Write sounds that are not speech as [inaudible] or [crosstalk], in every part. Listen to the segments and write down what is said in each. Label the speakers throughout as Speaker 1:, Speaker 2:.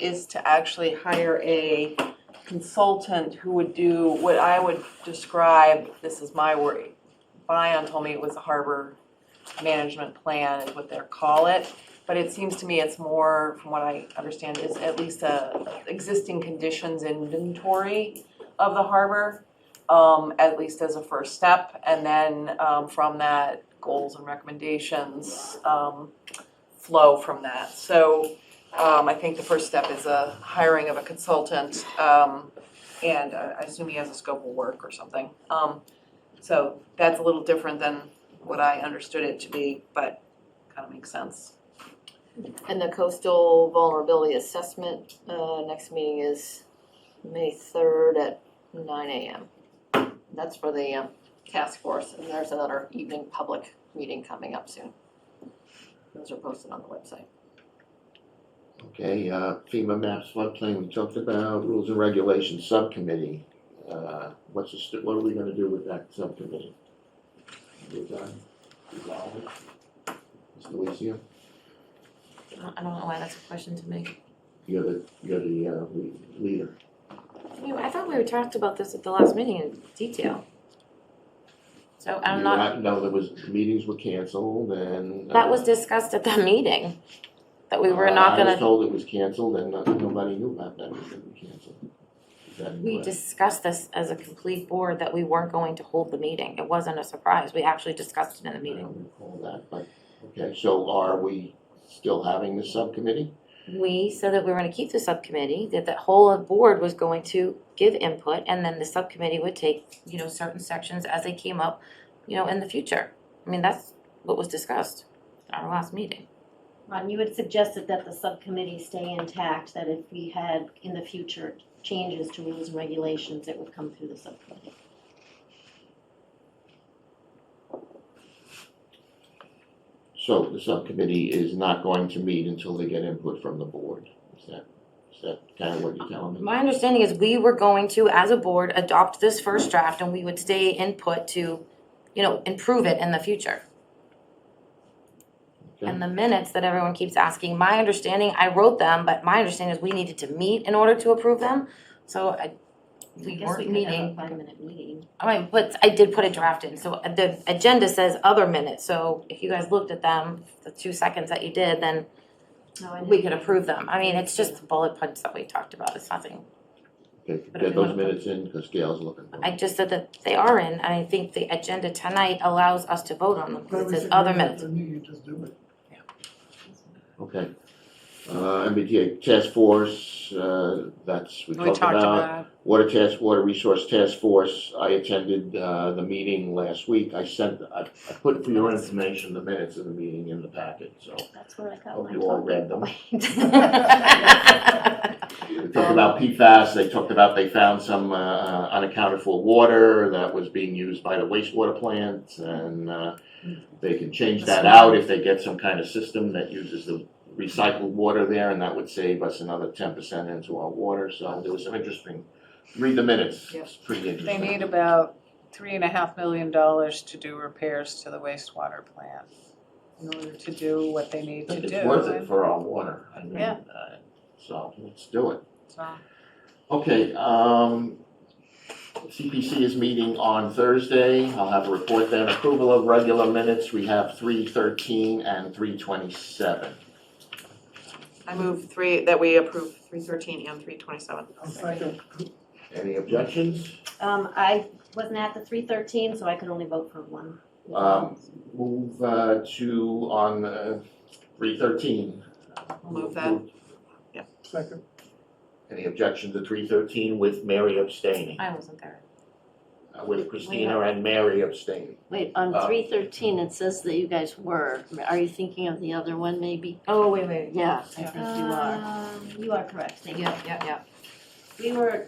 Speaker 1: is to actually hire a consultant who would do what I would describe, this is my word, Bion told me it was a harbor management plan is what they call it. But it seems to me it's more, from what I understand, is at least a existing conditions inventory of the harbor, um, at least as a first step. And then, um, from that, goals and recommendations, um, flow from that. So, um, I think the first step is a hiring of a consultant, um, and I I assume he has a scope of work or something. Um, so that's a little different than what I understood it to be, but kind of makes sense.
Speaker 2: And the coastal vulnerability assessment, uh, next meeting is May third at nine AM. That's for the, um, task force, and there's another evening public meeting coming up soon. Those are posted on the website.
Speaker 3: Okay, uh, FEMA maps, floodplain, we talked about, rules and regulations subcommittee. Uh, What's the, st- what are we gonna do with that subcommittee? We're done, resolve it. Mr. Lucio,
Speaker 4: I don't know why that's a question to me.
Speaker 3: you're the, you're the uh, le- leader.
Speaker 4: I mean, I thought we talked about this at the last meeting in detail. So I'm
Speaker 3: You
Speaker 4: not,
Speaker 3: not- No, there was, meetings were canceled and.
Speaker 4: that
Speaker 3: uh,
Speaker 4: was discussed at that meeting, that we were not
Speaker 3: I was
Speaker 4: gonna,
Speaker 3: told it was canceled and not- nobody knew about that, it was gonna be canceled. Is that
Speaker 4: we
Speaker 3: correct?
Speaker 4: discussed this as a complete board that we weren't going to hold the meeting. It wasn't a surprise. We actually discussed it in the
Speaker 3: I
Speaker 4: meeting.
Speaker 3: don't recall that, but, okay, so are we still having the subcommittee?
Speaker 4: We said that we were gonna keep the subcommittee, that the whole of board was going to give input, and then the subcommittee would take, you know, certain sections as they came up, you know, in the future. I mean, that's what was discussed at our last meeting.
Speaker 5: Ron, Um, you had suggested that the subcommittee stay intact, that if we had in the future changes to rules and regulations, it would come through the subcommittee.
Speaker 3: So the subcommittee is not going to meet until they get input from the board. Is that, is that kind of what you're telling me?
Speaker 4: My understanding is we were going to, as a board, adopt this first draft and we would stay input to, you know, improve it in the future. And the minutes that everyone keeps asking, my understanding, I wrote them, but my understanding is we needed to meet in order to approve them. So I,
Speaker 5: I
Speaker 4: we
Speaker 5: guess we
Speaker 4: weren't
Speaker 5: could have a
Speaker 4: meeting,
Speaker 5: five-minute meeting.
Speaker 4: I mean, but I did put a draft in, so the agenda says other minutes, so if you guys looked at them, the two seconds that you did, then
Speaker 5: No, I
Speaker 4: we
Speaker 5: know.
Speaker 4: could approve them. I mean, it's just the bullet points that we talked about, it's nothing
Speaker 3: Okay, Get those minutes in because Gail's looking for
Speaker 4: I
Speaker 3: them.
Speaker 4: just said that they are in, and I think the agenda tonight allows us to vote on them, because it says other minutes. [laughs]
Speaker 6: Then you just do it.
Speaker 3: Okay. Uh, MBTA Task Force, uh, that's, we talked about. Water Task, Water Resource Task Force, I attended, uh, the meeting last week. I sent, I, I put for your information the minutes of the meeting in the packet, so
Speaker 5: That's where I got
Speaker 3: hope
Speaker 5: my
Speaker 3: you all
Speaker 5: talking
Speaker 3: read them.
Speaker 5: point.
Speaker 3: They talked about PFAS, they talked about they found some uh, uh, unaccounted for water that was being used by the wastewater plant, and uh, they can change that out if they get some kind of system that uses the recycled water there, and that would save us another ten percent into our water, so there was some interesting, read the minutes, it's pretty
Speaker 7: They
Speaker 3: interesting.
Speaker 7: need about three and a half million dollars to do repairs to the wastewater plant in order to do what they need
Speaker 3: I
Speaker 7: to
Speaker 3: think
Speaker 7: do.
Speaker 3: it's worth it
Speaker 7: and
Speaker 3: for our water, I mean,
Speaker 7: Yeah.
Speaker 3: uh, so let's do it.
Speaker 7: so-
Speaker 3: Okay, um, CPC is meeting on Thursday. I'll have a report then. Approval of regular minutes, we have three thirteen and three twenty-seven.
Speaker 1: I move three, that we approve three thirteen and three twenty-seven.
Speaker 6: I'll second.
Speaker 3: Any objections?
Speaker 5: Um, I wasn't at the three thirteen, so I could only vote for one.
Speaker 3: Um, Move uh, to on uh, three thirteen.
Speaker 1: Move that.
Speaker 6: Second.
Speaker 3: Any objection to three thirteen with Mary abstaining,
Speaker 4: I wasn't there.
Speaker 3: Uh, with Christina and Mary abstaining?
Speaker 5: Wait, on
Speaker 3: Uh,
Speaker 5: three thirteen, it says that you guys were. Are you thinking of the other one, maybe?
Speaker 4: Oh, wait, wait,
Speaker 5: Yeah, I
Speaker 4: think
Speaker 5: you are. Um, you are correct, thank you.
Speaker 4: yeah, yeah, yeah.
Speaker 5: We were,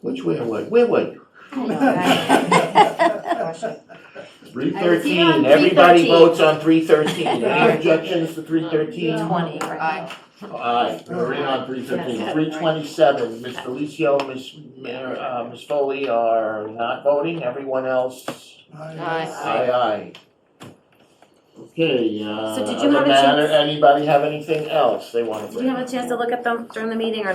Speaker 3: Which way, were- where were you?
Speaker 6: [laughs]
Speaker 3: Three
Speaker 5: on
Speaker 3: thirteen, everybody
Speaker 5: 313.
Speaker 3: votes on three thirteen. Any objections to three thirteen?
Speaker 5: Yeah.
Speaker 4: Twenty, right?
Speaker 3: Aye, we're in on three fifteen.
Speaker 5: Yes.
Speaker 3: Three twenty-seven, Ms. Felicio, Ms. Mayor, uh, Ms. Foley are not voting, everyone else,
Speaker 6: Aye.
Speaker 3: aye, aye. Okay, uh,
Speaker 4: So did you have
Speaker 3: other
Speaker 4: a chance-
Speaker 3: matter, anybody have anything else they wanna bring?
Speaker 4: Did you have a chance to look at them during the meeting or